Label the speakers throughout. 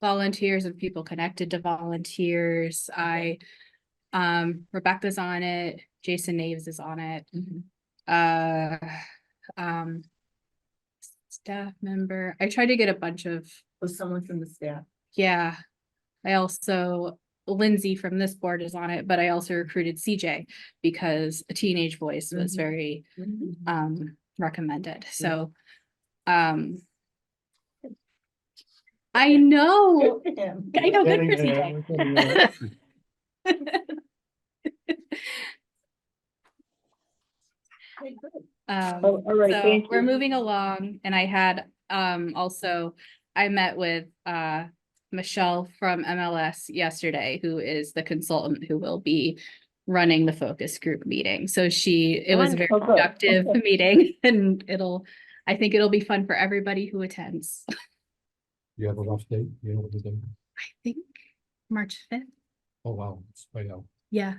Speaker 1: volunteers and people connected to volunteers. I, um, Rebecca's on it, Jason Naves is on it. Uh, um, staff member, I tried to get a bunch of,
Speaker 2: Was someone from the staff?
Speaker 1: yeah. I also, Lindsay from this board is on it, but I also recruited CJ because a teenage voice was
Speaker 2: Mhm.
Speaker 1: very um recommended, so. Um. I know,
Speaker 2: Good for him.
Speaker 1: I know, good for
Speaker 3: Getting there,
Speaker 1: CJ.
Speaker 3: we're getting there.
Speaker 2: Okay, good.
Speaker 1: Um,
Speaker 4: Oh, all right,
Speaker 1: so
Speaker 4: thank
Speaker 1: we're
Speaker 4: you.
Speaker 1: moving along and I had um also, I met with uh. Michelle from MLS yesterday, who is the consultant who will be running the focus group meeting, so she, it was a very
Speaker 4: Wonderful, good.
Speaker 1: productive meeting and it'll. I think it'll be fun for everybody who attends.
Speaker 3: You have a rough day, you know what to do.
Speaker 1: think March fifth.
Speaker 3: Oh, wow, it's way out.
Speaker 1: Yeah,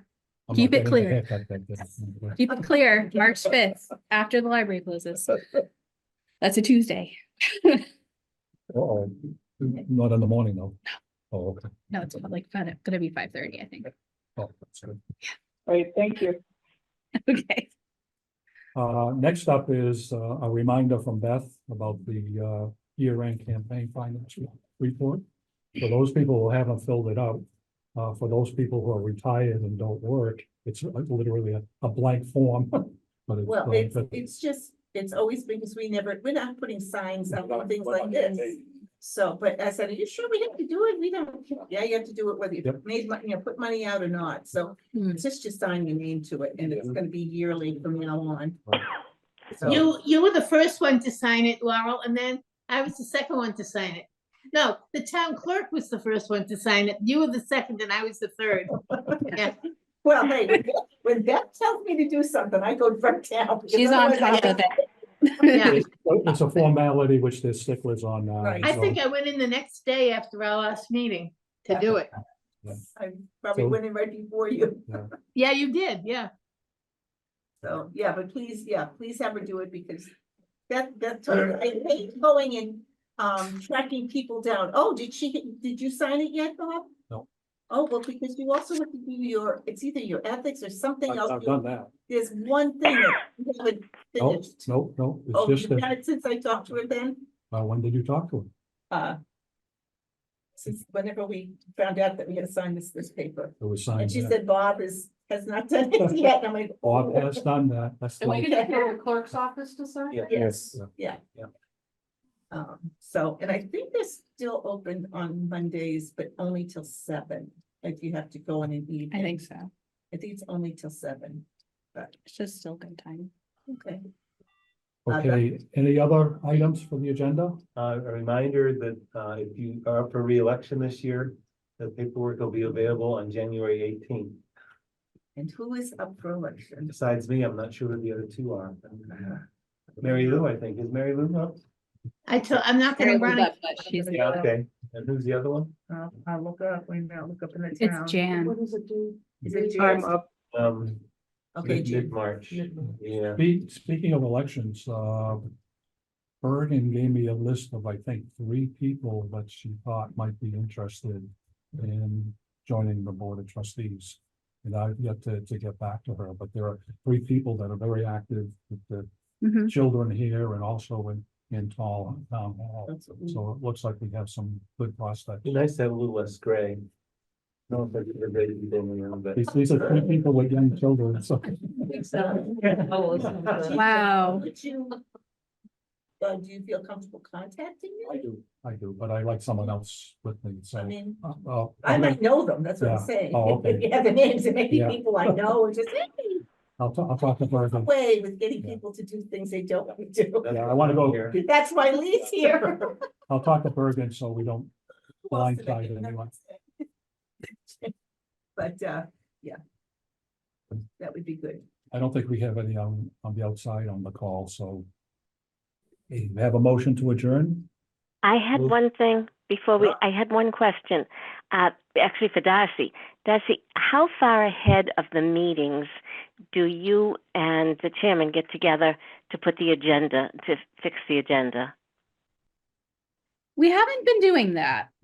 Speaker 3: I'm
Speaker 1: Keep
Speaker 3: not
Speaker 1: it
Speaker 3: getting a
Speaker 1: clear.
Speaker 3: haircut back then.
Speaker 1: keep it clear, March fifth, after the library closes. That's a Tuesday.
Speaker 3: Uh-oh. Not in the morning, though. Oh, okay.
Speaker 1: No, it's like, fin- gonna be five thirty, I think.
Speaker 3: Oh, that's good.
Speaker 4: All right, thank you.
Speaker 1: Okay.
Speaker 3: Uh, next up is uh, a reminder from Beth about the uh, year-end campaign finance report. For those people who haven't filled it out, uh, for those people who are retired and don't work, it's uh, literally a- a blank form. But it's,
Speaker 2: Well,
Speaker 3: uh,
Speaker 2: it's,
Speaker 3: but-
Speaker 2: it's just, it's always because we never, we're not putting signs up and things like this. So, but I said, are you sure we have to do it? We don't, care." yeah, you have to do it whether you
Speaker 3: Yep.
Speaker 2: made, mon- you know, put money out or not. So
Speaker 1: Hmm.
Speaker 2: it's just you sign your name to it and it's
Speaker 3: Yeah.
Speaker 2: gonna be yearly from now on.
Speaker 3: Right.
Speaker 2: So-
Speaker 5: You, you were the first one to sign it, Laurel, and then I was the second one to sign it. No, the town clerk was the first one to sign it. You were the second and I was the third. Yeah,
Speaker 2: Well, hey, when Beth- when Beth tells me to do something, I go right down. because
Speaker 1: She's on
Speaker 2: otherwise I
Speaker 1: top of
Speaker 5: yeah.
Speaker 1: it.
Speaker 3: It's a formality which there's sticklers on. uh,
Speaker 2: Right.
Speaker 5: I
Speaker 3: so-
Speaker 5: think I went in the next day after our last meeting to do it.
Speaker 2: I probably
Speaker 3: So-
Speaker 2: went in right before you.
Speaker 5: Yeah, you did, yeah.
Speaker 2: So, yeah, but please, yeah, please have her do it because that, that's, I hate going and um tracking people down. Oh, did she, did you sign it yet, Bob?
Speaker 3: No.
Speaker 2: Oh, well, because you also have to do your, it's either your ethics or something
Speaker 3: I've
Speaker 2: else.
Speaker 3: I've
Speaker 2: You-
Speaker 3: done that.
Speaker 2: There's one thing that you haven't
Speaker 3: No,
Speaker 2: finished.
Speaker 3: no, no,
Speaker 2: Oh,
Speaker 3: it's
Speaker 2: you've
Speaker 3: just that,
Speaker 2: done it since I talked to her then,
Speaker 3: uh, when did you talk to him?
Speaker 2: uh. Since whenever we found out that we had to sign this, this paper.
Speaker 3: It was
Speaker 2: And
Speaker 3: signed.
Speaker 2: she
Speaker 3: there.
Speaker 2: said Bob is, has not done it yet. And I'm like.
Speaker 3: Bob has done that, that's like,
Speaker 2: could go
Speaker 6: to the clerk's office to sign?
Speaker 2: Yes,
Speaker 3: Yeah.
Speaker 2: yeah.
Speaker 3: Yeah.
Speaker 2: Um, so, and I think they're still open on Mondays, but only till seven, if you have to go in and eat.
Speaker 1: I think so.
Speaker 2: I think it's only till seven,
Speaker 1: It's just still good time.
Speaker 2: okay. I've done-
Speaker 3: okay, any other items for the agenda?
Speaker 7: Uh, a reminder that, uh, if you are up for reelection this year, the paperwork will be available on January eighteenth.
Speaker 2: And who is up for election?
Speaker 7: Besides me, I'm not sure who the other two are.
Speaker 3: uh,
Speaker 7: Mary Lou, I think, is Mary Lou up?
Speaker 5: I told, I'm not gonna run. it.
Speaker 1: But she's-
Speaker 7: Yeah, okay. And who's the other one?
Speaker 2: Uh, I'll look up, wait a minute, I'll look up in the town.
Speaker 1: It's Jan.
Speaker 6: What does it do?
Speaker 2: Is it
Speaker 4: I'm
Speaker 2: Jan?
Speaker 4: up.
Speaker 7: Um,
Speaker 2: Okay,
Speaker 7: mid-
Speaker 2: Jan.
Speaker 7: mid-March, yeah.
Speaker 3: Be, speaking of elections, uh. Bergen gave me a list of, I think, three people that she thought might be interested in joining the Board of Trustees. And I've yet to, to get back to her, but there are three people that are very active with the
Speaker 5: Mm-hmm.
Speaker 1: Mhm.
Speaker 3: children here and also in, in Tall uh, Town Hall.
Speaker 2: That's what we-
Speaker 3: So it looks like we have some good prospects.
Speaker 7: Be nice to have a little less gray. No, but they're ready to be in, but.
Speaker 3: These, these are three people with young children, so.
Speaker 1: uh, Wow.
Speaker 2: Would you- Uh, do you feel comfortable contacting
Speaker 3: I
Speaker 2: me?
Speaker 3: do, I do, but I like someone else with me,
Speaker 2: I
Speaker 3: so.
Speaker 2: mean,
Speaker 3: uh, uh,
Speaker 2: I might know them, that's what I'm
Speaker 3: Yeah.
Speaker 2: saying.
Speaker 3: Oh,
Speaker 2: If- If
Speaker 3: okay.
Speaker 2: you have the names, and maybe
Speaker 3: Yeah.
Speaker 2: people I know, are just, hey,
Speaker 3: I'll, ta- I'll talk to Bergen.
Speaker 2: way with getting
Speaker 3: Yeah.
Speaker 2: people to do things they don't want to do.
Speaker 7: That's
Speaker 3: Yeah, I
Speaker 7: what
Speaker 3: wanna
Speaker 7: I'm
Speaker 3: go-
Speaker 7: here.
Speaker 2: That's why Lee's here.
Speaker 3: I'll talk to Bergen so we don't,
Speaker 2: Who else did I
Speaker 3: Blindsided
Speaker 2: get?
Speaker 3: anyone.
Speaker 2: But, uh, yeah. That would be good.
Speaker 3: I don't think we have any on, on the outside on the call, so. Hey, we have a motion to adjourn?
Speaker 8: I had
Speaker 3: Well-
Speaker 8: one thing before we, I had one question, uh, actually for Darcy. Darcy, how far ahead of the meetings do you and the chairman get together to put the agenda, to fix the agenda?
Speaker 1: We haven't been doing that.